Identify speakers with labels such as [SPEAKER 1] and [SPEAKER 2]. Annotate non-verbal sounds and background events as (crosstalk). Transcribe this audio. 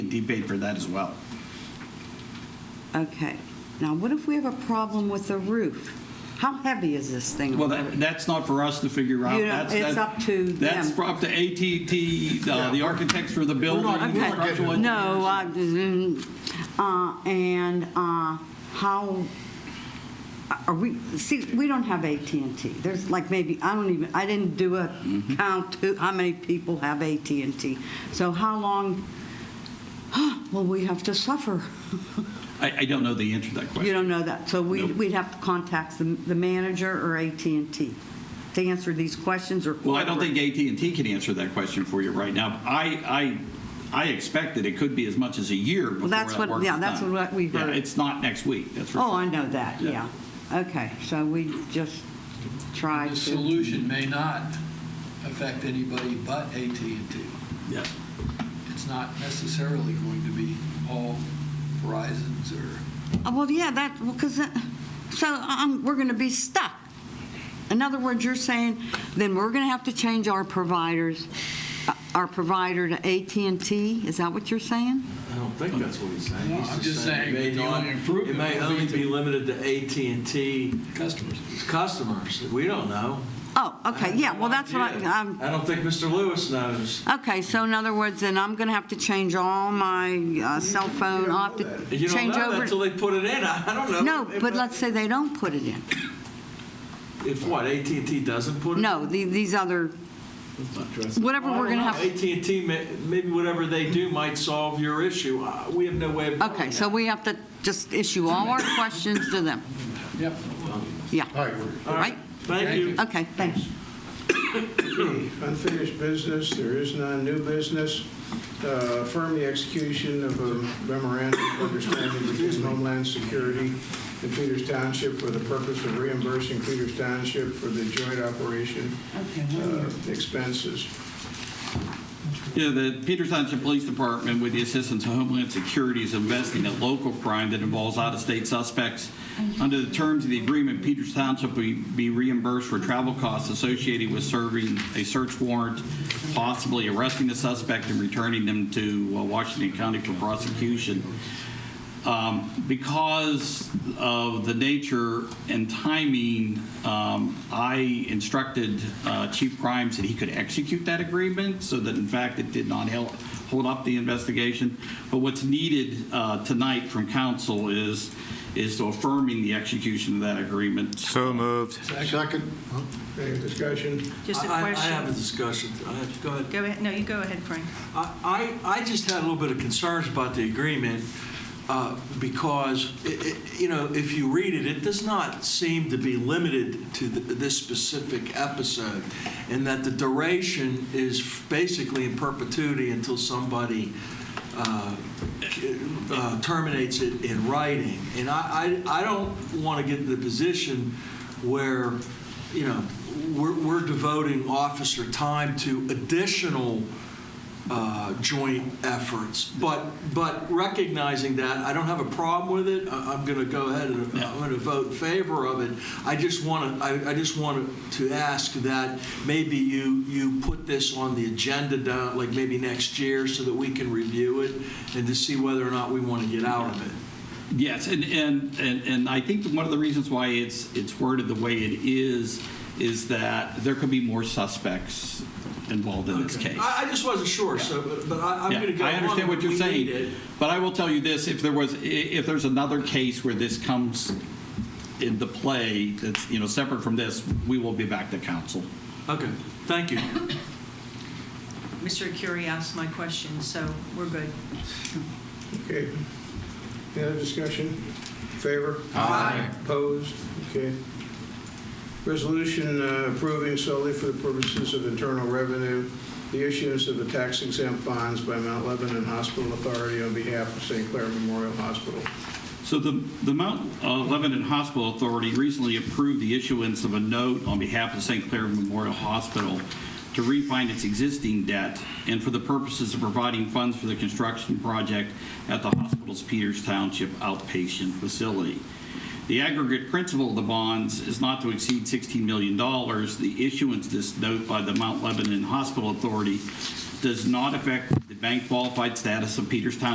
[SPEAKER 1] debate for that as well.
[SPEAKER 2] Okay. Now, what if we have a problem with the roof? How heavy is this thing?
[SPEAKER 1] Well, that, that's not for us to figure out.
[SPEAKER 2] You don't-
[SPEAKER 1] That's-
[SPEAKER 2] it's
[SPEAKER 1] that-
[SPEAKER 2] up to
[SPEAKER 1] That's
[SPEAKER 2] them.
[SPEAKER 1] up to AT&T, uh, the architects for the building.
[SPEAKER 3] not-
[SPEAKER 1] the
[SPEAKER 3] we're
[SPEAKER 2] Okay.
[SPEAKER 3] not
[SPEAKER 1] structural
[SPEAKER 3] getting
[SPEAKER 1] engineers.
[SPEAKER 2] No, I- mm, uh, and uh, how, are we, see, we don't have at and T. There's like maybe, I don't even, I didn't do a
[SPEAKER 1] Mm-hmm.
[SPEAKER 2] count to how many people have at and T. So how long (gasps) will we have to suffer?
[SPEAKER 1] I, I don't know the answer to that
[SPEAKER 2] You
[SPEAKER 1] question.
[SPEAKER 2] don't know that. So we-
[SPEAKER 1] Nope.
[SPEAKER 2] we'd have to contact the the manager or at and T to answer these questions or.
[SPEAKER 1] Well, I don't think AT&T can answer that question for you right now. I, I, I expect that it could be as much as a year before that
[SPEAKER 2] that's what-
[SPEAKER 1] work is
[SPEAKER 2] yeah, that's
[SPEAKER 1] done.
[SPEAKER 2] what we
[SPEAKER 1] Yeah,
[SPEAKER 2] heard.
[SPEAKER 1] It's not next week, that's for
[SPEAKER 2] Oh,
[SPEAKER 1] sure.
[SPEAKER 2] I know that,
[SPEAKER 1] Yeah.
[SPEAKER 2] yeah. Okay, so we just tried
[SPEAKER 3] The
[SPEAKER 2] to,
[SPEAKER 3] solution may not affect anybody but AT&T.
[SPEAKER 1] Yes.
[SPEAKER 3] It's not necessarily going to be all Verizon's or
[SPEAKER 2] Oh, well, yeah, that, well, because, so um, we're going to be stuck. In other words, you're saying, then we're going to have to change our providers, uh, our provider to at and T. Is that what you're saying?
[SPEAKER 4] I don't think that's what he's saying.
[SPEAKER 3] Well,
[SPEAKER 4] He's
[SPEAKER 3] I'm just saying
[SPEAKER 4] it may
[SPEAKER 3] that the
[SPEAKER 4] not-
[SPEAKER 3] only improvement
[SPEAKER 4] It may
[SPEAKER 3] would
[SPEAKER 4] only
[SPEAKER 3] be to-
[SPEAKER 4] be limited to AT&T
[SPEAKER 3] customers.
[SPEAKER 4] customers. We don't know.
[SPEAKER 2] Oh,
[SPEAKER 4] I
[SPEAKER 2] okay,
[SPEAKER 4] have
[SPEAKER 2] yeah,
[SPEAKER 4] no
[SPEAKER 2] well, that's what
[SPEAKER 4] idea.
[SPEAKER 2] I, um,
[SPEAKER 4] I don't think Mr. Lewis knows.
[SPEAKER 2] okay, so in other words, then I'm going to have to change all my uh, cell phone, I'll have to
[SPEAKER 4] You don't
[SPEAKER 2] change
[SPEAKER 4] know that until
[SPEAKER 2] over.
[SPEAKER 4] they put it in. (laughs) I I don't know.
[SPEAKER 2] No, but let's say they don't put it in.
[SPEAKER 4] If what, AT&T doesn't put it?
[SPEAKER 2] No, the- these other, whatever we're going to have.
[SPEAKER 4] AT&T, may- maybe whatever they do might solve your issue. Uh, We have no way of knowing
[SPEAKER 2] Okay, so
[SPEAKER 4] that.
[SPEAKER 2] we have to just issue all our questions to them.
[SPEAKER 3] Yep.
[SPEAKER 2] Yeah,
[SPEAKER 3] All right.
[SPEAKER 4] All right, thank you.
[SPEAKER 2] okay, thanks.
[SPEAKER 5] Unfinished business, there is none. New business, uh, affirm the execution of a memorandum of understanding between Homeland Security and Peters Township for the purpose of reimbursing Peters Township for the joint operation uh, expenses.
[SPEAKER 1] Yeah, the Peters Township Police Department, with the assistance of Homeland Security, is investigating a local crime that involves out-of-state suspects. Under the terms of the agreement, Peters Township will be reimbursed for travel costs associated with serving a search warrant, possibly arresting the suspect and returning them to uh, Washington County for prosecution. Um, Because of the nature and timing, um, I instructed uh, Chief Grimes that he could execute that agreement so that in fact it did not hel- hold up the investigation. But what's needed uh, tonight from council is, is to affirming the execution of that agreement.
[SPEAKER 6] So moved.
[SPEAKER 5] Second. Any discussion?
[SPEAKER 7] Just a
[SPEAKER 4] I- I- I have a
[SPEAKER 7] question.
[SPEAKER 4] discussion. I have to go ahead.
[SPEAKER 7] Go ahead, no, you go ahead, Frank.
[SPEAKER 4] I, I I just had a little bit of concerns about the agreement uh, because, i- i- you know, if you read it, it does not seem to be limited to th- this specific episode, and that the duration is basically in perpetuity until somebody uh, uh, terminates it in writing. And I, I I don't want to get to the position where, you know, we're we're devoting officer time to additional uh, joint efforts. But, but recognizing that, I don't have a problem with it. I- I'm going to go ahead and I'm going to vote in favor of it. I just want to, I I just wanted to ask that maybe you, you put this on the agenda down, like maybe next year, so that we can review it and to see whether or not we want to get out of it.
[SPEAKER 1] Yes, and, and, and and I think one of the reasons why it's, it's worded the way it is, is that there could be more suspects involved in this case.
[SPEAKER 4] I, I just wasn't sure, so, but- but I- I'm
[SPEAKER 1] Yeah,
[SPEAKER 4] going to go.
[SPEAKER 1] I understand what
[SPEAKER 4] along with
[SPEAKER 1] you're
[SPEAKER 4] we need
[SPEAKER 1] saying,
[SPEAKER 4] it.
[SPEAKER 1] but I will tell you this, if there was, i- if there's another case where this comes into play, that's, you know, separate from this, we will be back to council.
[SPEAKER 4] Okay, thank you.
[SPEAKER 7] Mr. Curie asked my question, so we're good.
[SPEAKER 5] Okay. Any other discussion? Favor? Aye. Opposed? Okay. Resolution uh, approving solely for the purposes of internal revenue, the issuance of the tax exempt bonds by Mount Lebanon Hospital Authority on behalf of St. Clair Memorial Hospital.
[SPEAKER 1] So the, the Mount uh, Lebanon Hospital Authority recently approved the issuance of a note on behalf of St. Clair Memorial Hospital to refine its existing debt and for the purposes of providing funds for the construction project at the hospital's Peters Township outpatient facility. The aggregate principal of the bonds is not to exceed $16 million. The issuance of this note by the Mount Lebanon Hospital Authority does not affect the bank qualified status of Peters Township